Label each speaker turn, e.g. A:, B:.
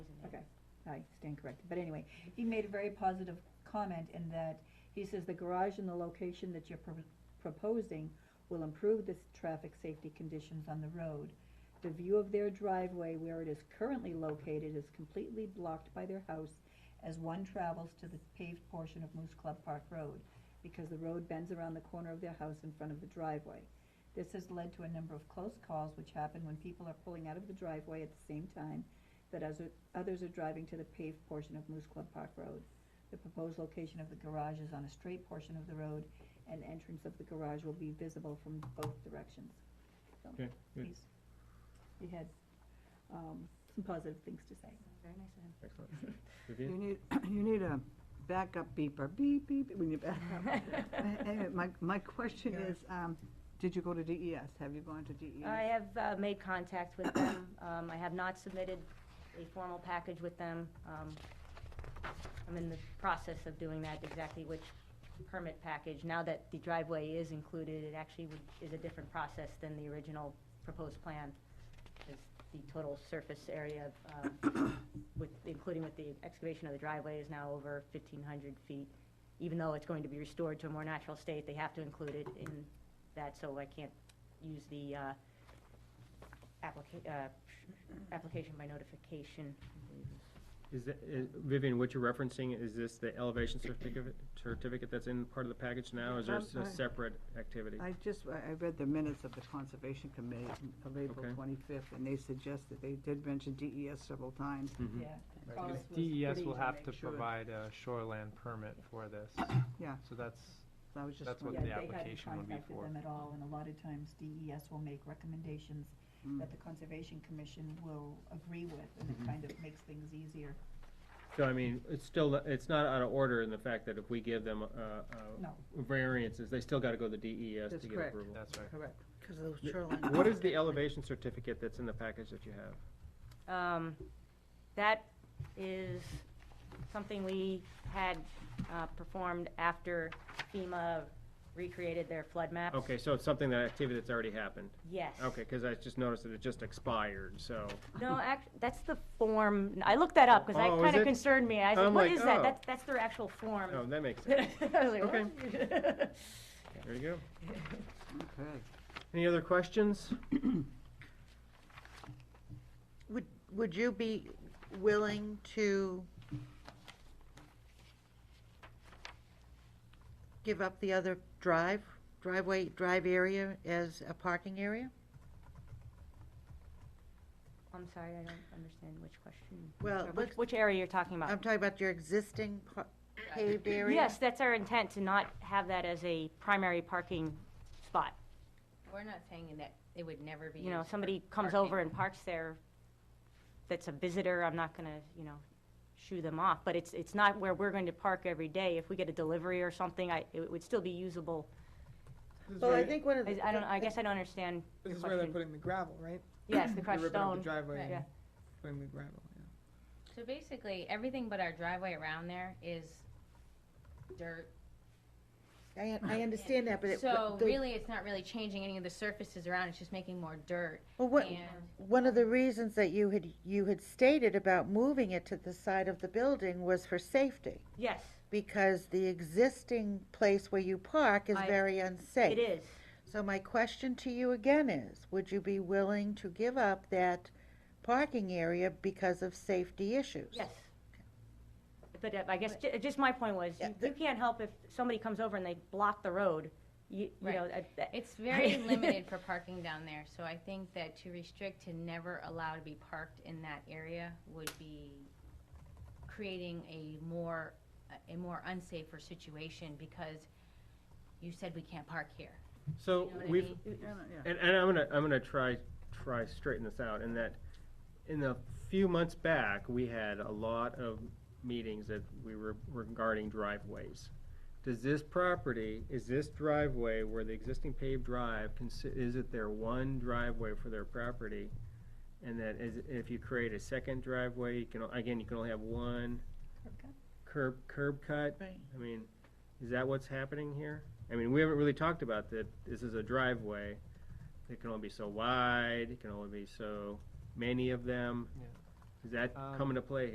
A: I stand corrected, but anyway, he made a very positive comment in that he says the garage and the location that you're pro- proposing will improve the s- traffic safety conditions on the road. The view of their driveway where it is currently located is completely blocked by their house as one travels to the paved portion of Moose Club Park Road, because the road bends around the corner of their house in front of the driveway. This has led to a number of close calls which happen when people are pulling out of the driveway at the same time that as others are driving to the paved portion of Moose Club Park Road. The proposed location of the garage is on a straight portion of the road, and entrance of the garage will be visible from both directions. So,
B: Okay, good.
A: he's- He had, um, some positive things to say.
C: Very nice of him.
B: Excellent.
D: You
B: Vivian?
D: need, you need a backup beeper, beep, beep, beep, when you back up. Anyway, my, my question
A: Yeah.
D: is, um, did you go to DES? Have you gone to E DES?
C: I have uh, made contact with them. Um, I have not submitted a formal package with them. Um, I'm in the process of doing that, exactly which permit package. Now that the driveway is included, it actually would- is a different process than the original proposed plan. 'cause The total surface area, um, with, including with the excavation of the driveway, is now over 1,500 feet. Even though it's going to be restored to a more natural state, they have to include it in that, so I can't use the uh, applica- uh, application by notification.
B: Is that, is, Vivian, what you're referencing, is this the elevation certificate, certificate that's in part of the package now? or Is there
D: Um,
B: s-
D: I-
B: a separate activity?
D: I just, I I read the minutes of the Conservation Committee of April
B: Okay.
D: twenty-fifth, and they suggested, they did mention DES several times.
B: Mhm.
A: Yeah.
E: Right,
A: Carlos
E: because
A: was
E: DES
A: pretty-
E: E will have to
D: sure.
E: provide a shoreland permit for this.
D: Yeah.
E: So that's,
D: So I was just.
E: That's what
A: Yeah,
E: the
A: they
D: wondering.
A: hadn't
E: application would be
A: contacted
E: for.
A: them at all, and a lot of times DES will make recommendations
D: Mm.
A: that the Conservation Commission will agree with, and it
B: Mhm.
A: kind of makes things easier.
B: So I mean, it's still, it's not out of order in the fact that if we give them, uh, uh,
A: No.
B: variances, they still gotta go to the DES
D: That's
B: to get
D: correct.
B: approval.
E: that's right.
D: Correct.
F: Because of
B: Yeah.
F: those shoreline.
B: What is the elevation certificate that's in the package that you have?
C: Um, That is something we had uh, performed after FEMA recreated their flood maps.
B: Okay, so it's something that, activity that's already happened.
C: Yes.
B: Okay, cause I just noticed that it just expired, so.
C: No, act, that's the form, I looked that up, because that
B: Oh, is
C: kind of
B: it?
C: concerned me. I said,
B: I'm
C: what
B: like,
C: is
B: oh.
C: that? That's, that's their actual
B: Oh,
C: form.
B: that makes sense.
C: I was like, what?
B: There you go.
D: Okay.
B: Any other questions?
F: Would, would you be willing to give up the other drive, driveway, drive area as a parking area?
C: I'm sorry, I don't understand which question. or
F: Well, Uh, let's-
C: Which, which area you're talking about?
F: I'm talking about your existing par- paved area?
C: Yes, that's our intent, to not have that as a primary parking spot.
G: We're not saying that it would never be.
C: You know,
G: used for
C: somebody comes
G: parking.
C: over and parks there, that's a visitor, I'm not gonna, you know, shoo them off, but it's, it's not where we're going to park every day. If we get a delivery or something, I, it would still be usable.
F: Well, I think one of
C: I,
F: the.
C: I don't, I guess I don't understand your
H: This is where they're
C: question.
H: putting the gravel, right?
C: Yes, the
H: They're
C: crushed
H: ripping up
C: stone.
H: The driveway
G: Right.
H: and
C: Yeah.
H: putting the gravel, yeah.
G: So basically, everything but our driveway around there is dirt.
F: I, I understand that, but it.
G: So
F: the-
G: really, it's not really changing any of the surfaces around, it's just making more dirt.
F: Well, what,
G: And
F: one of the reasons that you had, you had stated about moving it to the side of the building was for safety.
C: Yes,
F: because the existing place where you park is
C: I-
F: very unsafe.
C: it is.
F: So my question to you again is, would you be willing to give up that parking area because of safety issues?
C: Yes. But uh, I guess, ju- just my point was,
F: Yeah,
C: you-
F: the-
C: you can't help if somebody comes over and they block the road, you, you
G: Right.
C: know. uh, I- I-
G: It's very limited for parking down there, so I think that to restrict to never allow to be parked in that area would be creating a more, a more unsafer situation because you said we can't park here. You
B: So
G: know what I
B: we've,
G: mean?
D: Yeah, yeah.
B: And, and I'm gonna, I'm gonna try, try straighten this out, in that, in the few months back, we had a lot of meetings that we were regarding driveways. Does this property, is this driveway where the existing paved drive, consi- is it their one driveway for their property? And that is, if you create a second driveway, you can, o- again, you can only have one curb, curb cut?
F: Right.
B: I mean, is that what's happening here? I mean, we haven't really talked about that, this is a driveway, it can only be so wide, it can only be so many of them.
E: Yeah.
B: Does that
E: Um,
B: come into play